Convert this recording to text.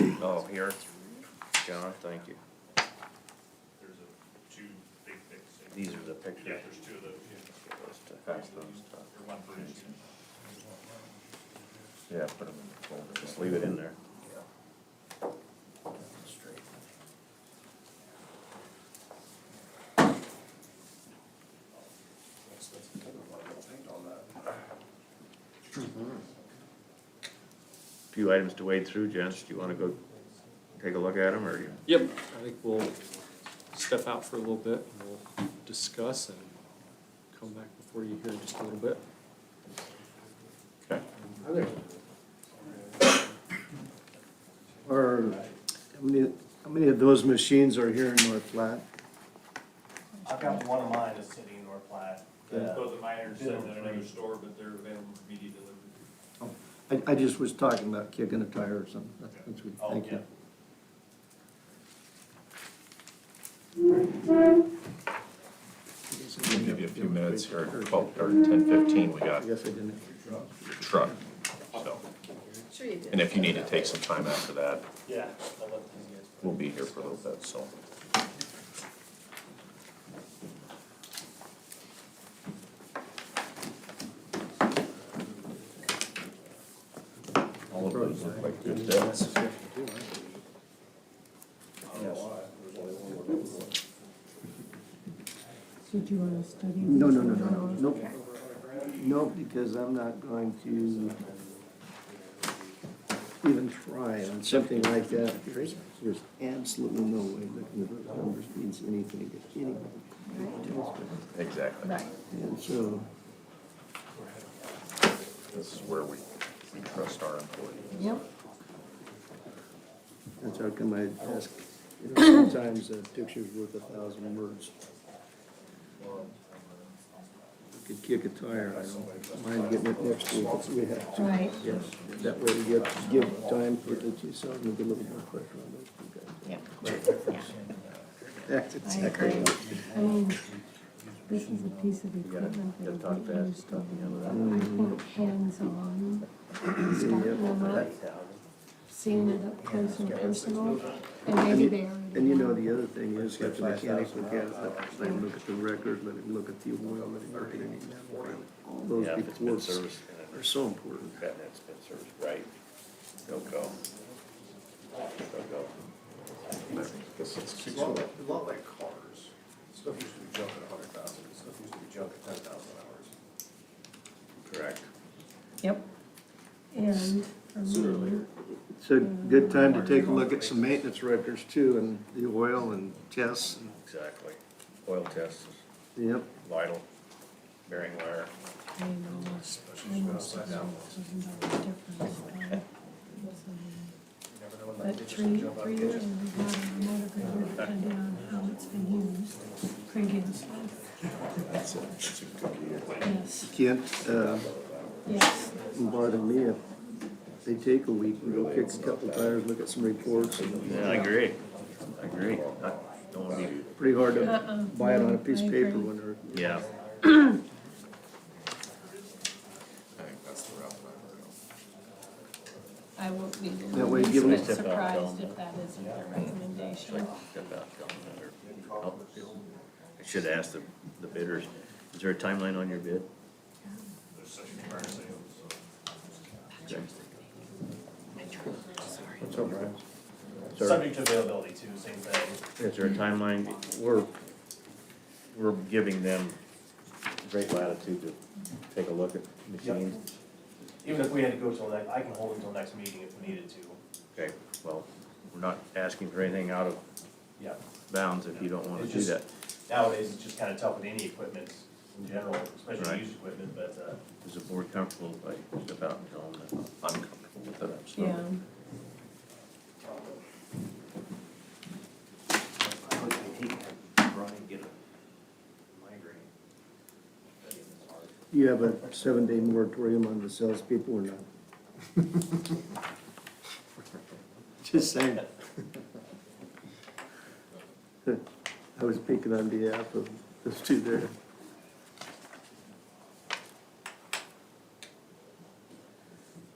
here. John, thank you. There's a two big things. These are the Yeah, pictures. there's two of those, yeah, Pass those to- or one for each. Yeah, put them in the folder. Just leave it in there. Few items to wade through, gents. Do you wanna go take a look at them, or you? Yep, I think we'll step out for a little bit and we'll discuss and come back before you here in just a little bit. Okay. Or, how many, how many of those machines are here in North Platte? I've got one of mine that's sitting in North Platte. The- Both of mine are sitting in another store, but they're available for media delivery. I, I just was talking about kicking a tire or something, That's- that's what, Oh, thank yeah. you. We'll give you a few minutes here, twelve, or ten fifteen, we I got your guess I didn't. truck, so. Sure you did. And if you need to take some time after that, Yeah, I love these guys. we'll be here for a little bit, so. All of those look like good debts. So do you want to study? No, these no, no, for no, an no, hour? nope. Nope, because I'm not going to even try on something like that. There's, there's absolutely no way looking at those numbers means anything to anybody. Exactly. Right. And so, This is where we, we trust our employees. Yep. that's how come I ask, you know, sometimes a picture's worth a thousand words. I Could kick a tire, I don't mind getting it next week if we have to. Right. Yes, that way we get, give time for the two seven, and get a little more pressure on those two guys. Yep. That's I exactly agree. right. I mean, this is a piece of equipment gotta that talk would be fast, used. talk the other I think hands-on, stuff will not seeing it up close and personal, and maybe they already. And you know, have. the other thing is, if the mechanic look at it, let him look at the record, let him look at the oil, let him look at any memory. All those Yeah, if it's been reports serviced, are so important. and it's been serviced right, they'll go. They'll go. This is- A lot, like- a lot like cars, stuff used to be junk at a hundred thousand, stuff used to be junk at ten thousand hours. Correct. Yep. And for me, It's a good time to take a look at some maintenance records too, and the oil and tests. Exactly. Oil test is Yep, vital, bearing wire. I know, almost a thousand dollar difference. uh, But three, three years, we've got a motor grader depending on how it's been used, previous life. Yes, Kent, uh, yes. bothered me if they take a week, we go kick a couple tires, look at some reports. and Yeah, I agree. I agree. I don't wanna be, Pretty hard Uh-uh, to buy it on a piece I of paper agree. when they're I yeah. think that's the route that I would go. I won't be That way give the them- least bit surprised if that isn't their recommendation. Step out, John, or- I'll- Oh. I should ask the, the bidders, is there a timeline on your bid? There's such a fire sale, so. That's all right. Sir, Subject to availability too, same thing. is there a timeline? We're, we're giving them great latitude to take a look at machines. Even if we had to go till next, I can hold until next meeting if needed to. Okay, well, we're not asking for anything out of Yeah. bounds if you don't wanna It's do just- that. Nowadays, it's just kind of tough with any equipment in general, Right. especially used equipment, but, uh, Is the board comfortable, like, step out and tell them that I'm comfortable with it, I'm Yeah. sorry? You have a seven-day moratorium on the salespeople or not? Just saying. I was picking on behalf of those two there.